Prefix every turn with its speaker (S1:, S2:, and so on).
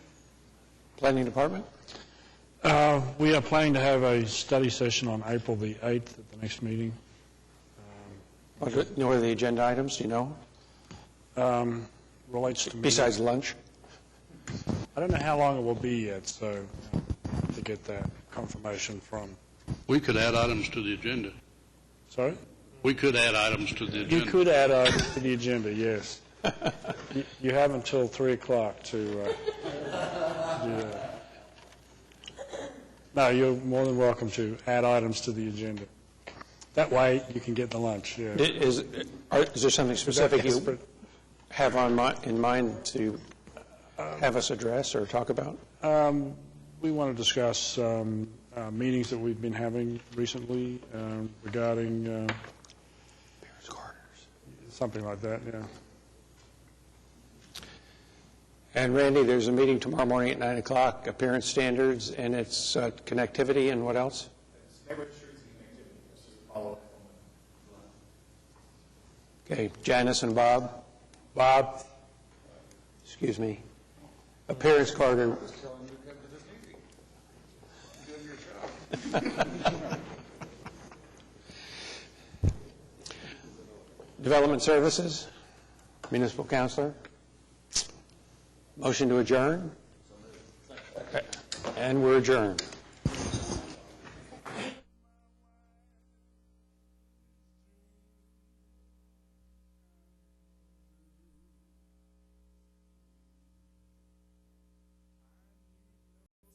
S1: Planning Department?
S2: Uh, We are planning to have a study session on April the 8th at the next meeting.
S1: What are- What are the agenda items, do you know,
S2: Um, Relates to me.
S1: besides lunch?
S2: I don't know how long it will be yet, so uh, to get that confirmation from,
S3: We could add items to the agenda.
S2: sorry?
S3: We could add items to the
S2: You
S3: agenda.
S2: could add uh, to the agenda, yes. You- You have until 3 o'clock to uh, do that. No, you're more than welcome to add items to the agenda. That way, you can get the lunch, yeah.
S1: I- Is, are- is there something specific you
S2: Desperate.
S1: have on mi, in mind to have us address or talk about?
S2: Um, We want to discuss um, uh, meetings that we've been having recently um, regarding uh, something like that, yeah.
S1: And Randy, there's a meeting tomorrow morning at 9 o'clock, appearance standards, and it's uh, connectivity, and what else? Okay, Janice and Bob? Bob? Excuse me. Appearance card, or- Development Services, Municipal Counselor? Motion to adjourn? And we're adjourned.